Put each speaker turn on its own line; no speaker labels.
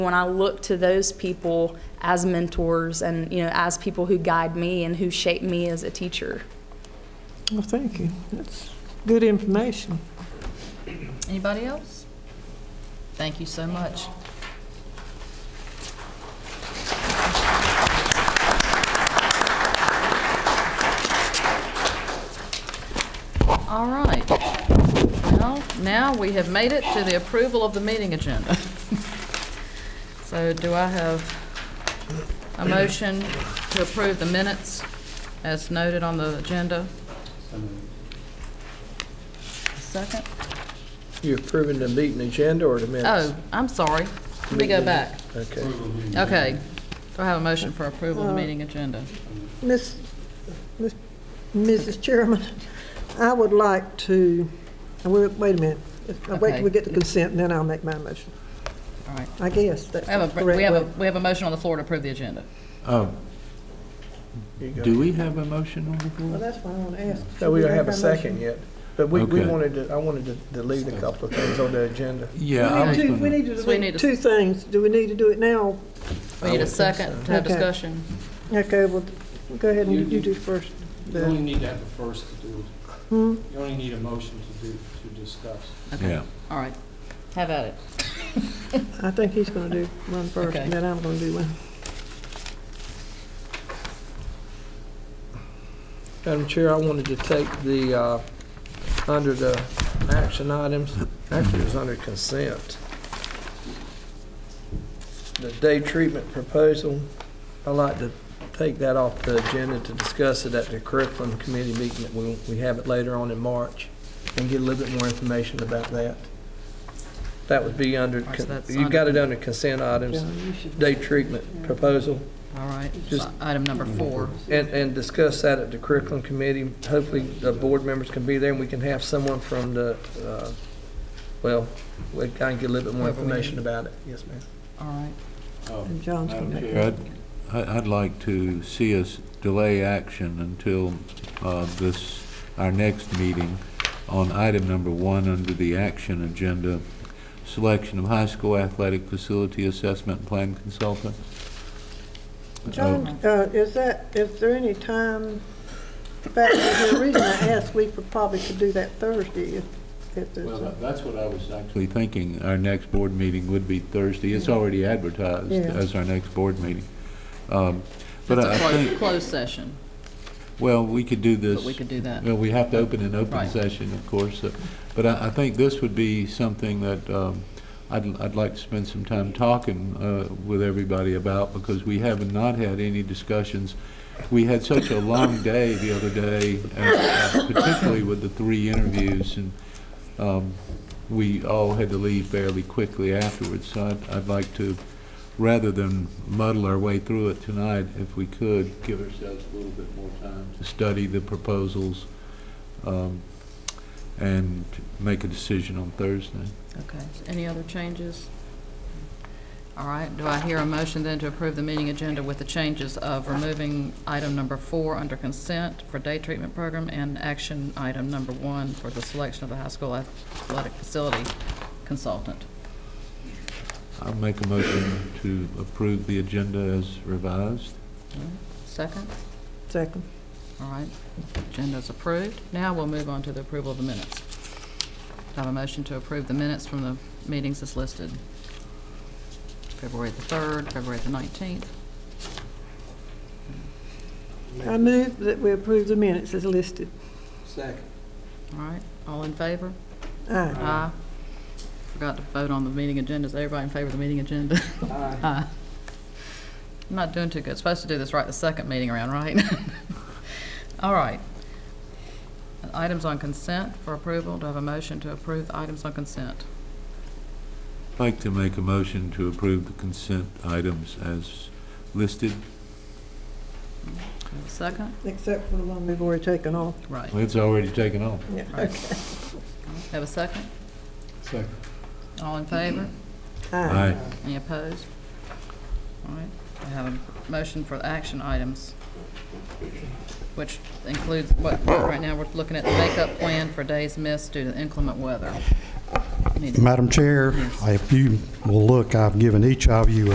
When I look to those people as mentors and, you know, as people who guide me and who shape me as a teacher.
Well, thank you. That's good information.
Anybody else? Thank you so much. All right. Well, now we have made it to the approval of the meeting agenda. So do I have a motion to approve the minutes as noted on the agenda? Second?
You approving the meeting agenda or the minutes?
Oh, I'm sorry. Let me go back.
Okay.
Okay. Do I have a motion for approval of the meeting agenda?
Miss, Miss- Mrs. Chairman, I would like to, wait wait a minute. I'll Wait till we
Okay.
get the consent, and then I'll make my motion.
All right.
I guess that's
We have a,
correct.
we have a,
way.
we have a motion on the floor to approve the agenda.
Oh,
Here you go.
do we have a motion on the
Well,
floor?
that's why I want to ask.
No, we
Should
don't have a
make our motion?
second yet, but we, we
Okay.
wanted to, I wanted to delete a couple of things on the agenda.
Yeah. I
We
was
need to,
gonna-
we need to
So we need
delete
to-
two things. Do we need to do it now?
We
I
need a
would think so.
second to have
Okay.
discussion.
Okay, well, go ahead
You-
and you do first.
You only need to have the first to do,
Hmm?
you only need a motion to do, to discuss.
Yeah,
All right. Have at it.
I think he's going to do one first,
Okay.
and then I'm going to do one.
Madam Chair, I wanted to take the, uh, under the action items, actually it was under consent. The day treatment proposal, I'd like to take that off the agenda to discuss it at the curriculum committee meeting that we, we have it later on in March and get a little bit more information about that. That would be under,
Alright, so that's
you got it under consent items,
John, you should-
day treatment proposal.
All right.
Just-
So Item number four.
And, and discuss that at the curriculum committee. Hopefully, the board members can be there, and we can have someone from the, uh, well, we can get a little bit more
Whoever we need.
information about it. Yes, ma'am.
All right.
And John's going to make.
I'd, I- I'd like to see us delay action until uh, this, our next meeting on item number one under the action agenda, selection of high school athletic facility assessment plan consultant. Oh,
John, uh, is that, is there any time, in fact, the reason I asked, we could probably could do that Thursday if, if there's,
Well, uh,
a-
that- that's what I was actually thinking, our next board meeting would be Thursday. It's already advertised
Yeah.
as our next board meeting. Um, But I I
That's a closed,
think,
closed session,
well, we could do this.
but we could do that.
Well, we have to open an open
Right.
session, of course, so- but I, I think this would be something that um, I'd, I'd like to spend some time talking uh, with everybody about, because we have not had any discussions. We had such a long day the other day, and, uh, particularly with the three interviews, and um, we all had to leave fairly quickly afterwards, so I'd, I'd like to, rather than muddle our way through it tonight, if we could, give ourselves a little bit more time to study the proposals um, and make a decision on Thursday.
Okay. Any other changes? All right. Do I hear a motion then to approve the meeting agenda with the changes of removing item number four under consent for day treatment program and action item number one for the selection of the high school athletic facility consultant?
I'll make a motion to approve the agenda as revised.
Second?
second.
All right. Agenda's approved. Now we'll move on to the approval of the minutes. Do I have a motion to approve the minutes from the meetings as listed? February the 3rd, February the 19th.
I move that we approve the minutes as listed.
Second.
All right. All in favor?
Aye.
Aye. Forgot to vote on the meeting agenda. Is everybody in favor of the meeting agenda? Aye. I'm not doing too good. Supposed to do this right the second meeting around, right? All right. Items on consent for approval. Do I have a motion to approve the items on consent?
I'd like to make a motion to approve the consent items as listed.
Do I have a Second?
Except for the one we've already taken off.
Right.
It's already taken off.
Yeah.
Right. Have a second?
Second.
All in favor?
Aye.
Aye.
Any opposed? All right, I have a motion for the action items, which includes what, right now, we're looking at the makeup plan for days missed due to inclement weather. Need to-
Madam Chair,
Yes.
if you will look, I've given each of you